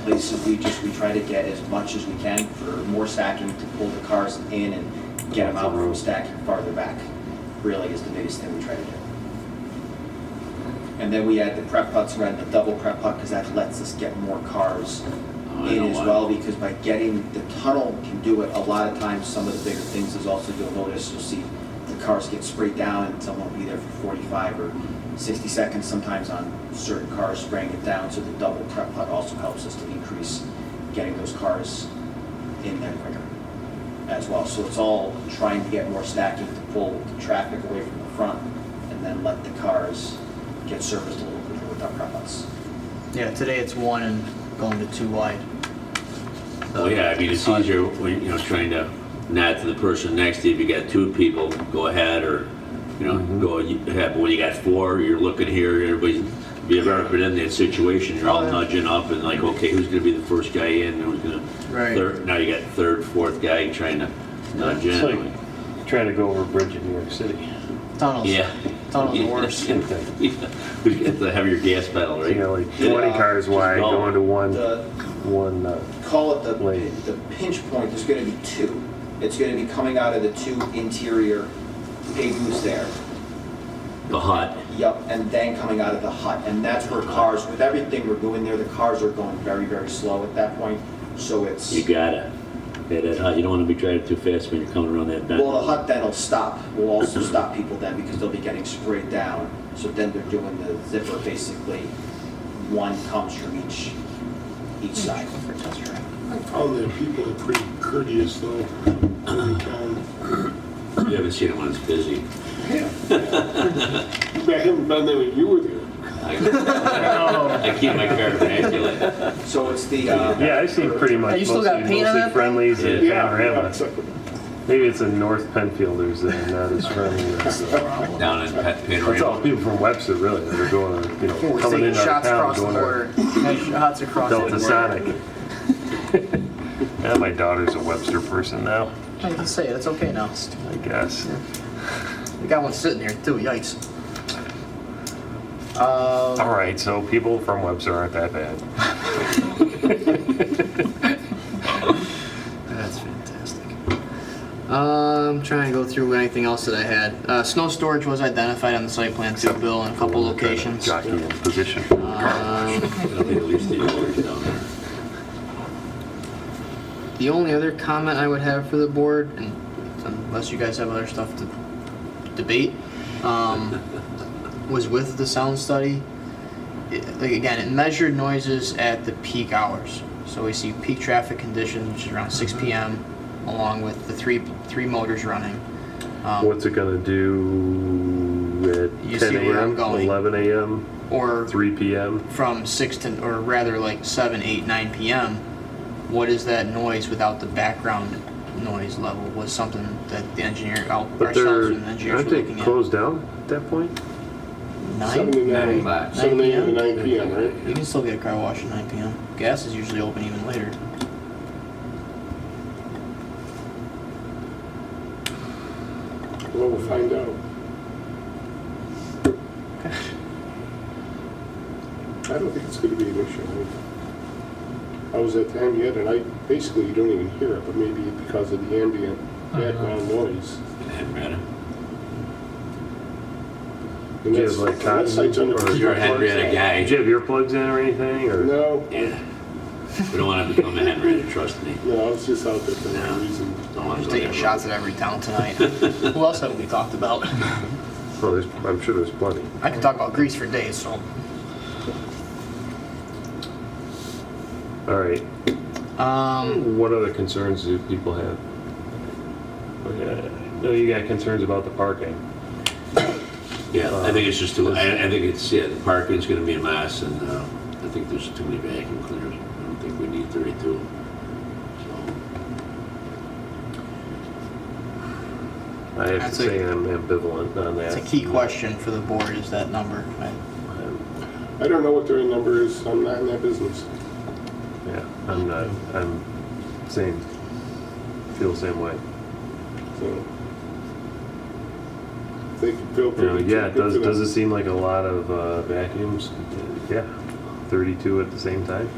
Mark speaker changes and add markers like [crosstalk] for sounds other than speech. Speaker 1: places, we just, we try to get as much as we can for more stacking to pull the cars in and get them out from stacking farther back, really is the biggest thing we try to do. And then we add the prep putts, we're adding the double prep putt, because that lets us get more cars
Speaker 2: Oh, I
Speaker 1: in
Speaker 2: know
Speaker 1: as
Speaker 2: why.
Speaker 1: well, because by getting, the tunnel can do it, a lot of times, some of the bigger things is also you'll notice, you'll see the cars get sprayed down and some won't be there for forty-five or sixty seconds sometimes on certain cars spraying it down, so the double prep putt also helps us to increase getting those cars in there quicker as well. So it's all trying to get more stacking to pull the traffic away from the front and then let the cars get serviced a little quicker with our prep putts.
Speaker 3: Yeah, today it's one and going to two wide.
Speaker 2: Well, yeah, I mean, it's easier when, you know, trying to nod to the person next to you. If you got two people, go ahead or, you know, go ahead. But when you got four, you're looking here, everybody's, if you've ever been in that situation, you're all
Speaker 3: Oh, yeah.
Speaker 2: nudging up and like, okay, who's gonna be the first guy in? Who's gonna,
Speaker 3: Right.
Speaker 2: third, now you got third, fourth guy trying to nudge [laughs]
Speaker 4: It's
Speaker 2: in.
Speaker 4: like trying to go over a bridge in New York City.
Speaker 3: Tunnels.
Speaker 2: Yeah.
Speaker 3: Tunnels are worse.
Speaker 4: Same thing.
Speaker 2: Yeah. We get the heavier gas pedal,
Speaker 4: You
Speaker 2: right?
Speaker 4: know, like 20 cars wide
Speaker 2: go.
Speaker 4: going to one,
Speaker 1: The-
Speaker 4: one, uh,
Speaker 1: call it the,
Speaker 4: Lane.
Speaker 1: the pinch point, there's gonna be two. It's gonna be coming out of the two interior pavements there.
Speaker 2: The hot.
Speaker 1: Yep, and then coming out of the hut, and that's where cars, with everything we're doing there, the cars are going very, very slow at that point, so it's,
Speaker 2: You gotta, yeah, that hot. You don't wanna be driving too fast when you're coming around that bend.
Speaker 1: well, the hut then will stop, will also stop people then, because they'll be getting sprayed down, so then they're doing the zipper basically, one comes from each, each side.
Speaker 5: I found that people are pretty courteous [clears throat] though, when they come.
Speaker 2: You haven't seen it when it's busy.
Speaker 5: I haven't been there when you were there.
Speaker 2: I keep my car immaculate.
Speaker 1: So it's the, uh,
Speaker 4: yeah, I see pretty much
Speaker 3: Hey, you still
Speaker 4: mostly,
Speaker 3: got paint on
Speaker 4: mostly
Speaker 3: that thing?
Speaker 4: friendlies and
Speaker 5: Yeah,
Speaker 4: panorama.
Speaker 5: exactly.
Speaker 4: Maybe it's the North Penfielders that are not as friendly. as, uh,
Speaker 2: Down in Pet
Speaker 4: It's all
Speaker 2: Panorama.
Speaker 4: people from Webster, really, that are going, to, you know,
Speaker 3: We're
Speaker 4: coming
Speaker 3: seeing
Speaker 4: into our
Speaker 3: shots
Speaker 4: town,
Speaker 3: across the
Speaker 4: going
Speaker 3: border.
Speaker 4: to
Speaker 3: Shots across the
Speaker 4: Delta
Speaker 3: border.
Speaker 4: Sonic. Yeah, my daughter's a Webster person now,
Speaker 3: I can say it. It's okay now.
Speaker 4: I guess.
Speaker 3: We got one sitting here too. Yikes. Uh,
Speaker 4: All right, so people from Webster aren't that bad.
Speaker 3: That's fantastic. Um, trying to go through anything else that I had. Uh, snow storage was identified on the site plan too, Bill, in a couple locations.
Speaker 4: Jockey in position.
Speaker 3: Um,
Speaker 2: It'll be at least eight hours down there.
Speaker 3: The only other comment I would have for the board, and unless you guys have other stuff to debate, um, was with the sound study. It- like, again, it measured noises at the peak hours. So we see peak traffic conditions, which is around 6 p.m., along with the three three motors running. Um,
Speaker 4: What's it gonna do
Speaker 3: You
Speaker 4: at
Speaker 3: see
Speaker 4: ten
Speaker 3: where I'm
Speaker 4: AM,
Speaker 3: going.
Speaker 4: eleven AM,
Speaker 3: or
Speaker 4: three PM?
Speaker 3: from 6 to, or rather like 7, 8, 9 p.m., what is that noise without the background noise level was something that the engineer, out-
Speaker 4: But
Speaker 3: ourselves
Speaker 4: they're,
Speaker 3: and the engineers
Speaker 4: aren't
Speaker 3: were
Speaker 4: they
Speaker 3: looking at.
Speaker 4: closed down at that point?
Speaker 5: Seven
Speaker 3: Nine?
Speaker 5: to nine.
Speaker 2: Nine.
Speaker 5: Seven AM to
Speaker 3: Nine
Speaker 5: nine PM, right?
Speaker 3: You can still get a car wash at 9 p.m. Gas is usually open even later.
Speaker 5: Well, we'll find out. I don't think it's gonna be an issue. I was at the ambient and I, basically you don't even hear it, but maybe because of the ambient background noise.
Speaker 2: Henrietta.
Speaker 5: And
Speaker 4: Do you
Speaker 5: that's-
Speaker 4: have, like,
Speaker 5: and
Speaker 4: cotton
Speaker 5: that site's under-
Speaker 4: or-
Speaker 2: You're a Henrietta
Speaker 4: Did you
Speaker 2: guy.
Speaker 4: have earplugs in or anything, or?
Speaker 5: No,
Speaker 2: Yeah. We don't wanna become a Henrietta, trust me.
Speaker 5: no, it's just out there for
Speaker 2: Yeah.
Speaker 5: no reason.
Speaker 2: Don't wanna
Speaker 3: Just
Speaker 2: go
Speaker 3: taking
Speaker 2: that
Speaker 3: shots at every town tonight. Who else have we talked about?
Speaker 4: Oh, there's, I'm sure there's plenty.
Speaker 3: I could talk about Greece for days, so.
Speaker 4: All right,
Speaker 3: Um,
Speaker 4: what other concerns do people have? Okay, I know Uh, you got concerns about the parking.
Speaker 2: road. Yeah, I think it's just too, I, I think it's, yeah, the parking's gonna be a mess and, uh, I think there's too many vacuum cleaners. I don't think we need thirty-two. So,
Speaker 4: I have to
Speaker 3: That's a-
Speaker 4: say I'm ambivalent on that.
Speaker 3: it's a key question for the board is that number. I-
Speaker 4: I'm-
Speaker 5: I don't know what their number is, I'm not in that business.
Speaker 4: Yeah, I'm not, I'm same, feel the same way.
Speaker 5: So They could feel
Speaker 4: You know,
Speaker 5: pretty.
Speaker 4: yeah, it
Speaker 5: good
Speaker 4: does,
Speaker 5: for them.
Speaker 4: does it seem like a lot of uh, vacuums? Yeah, 32 at the same time?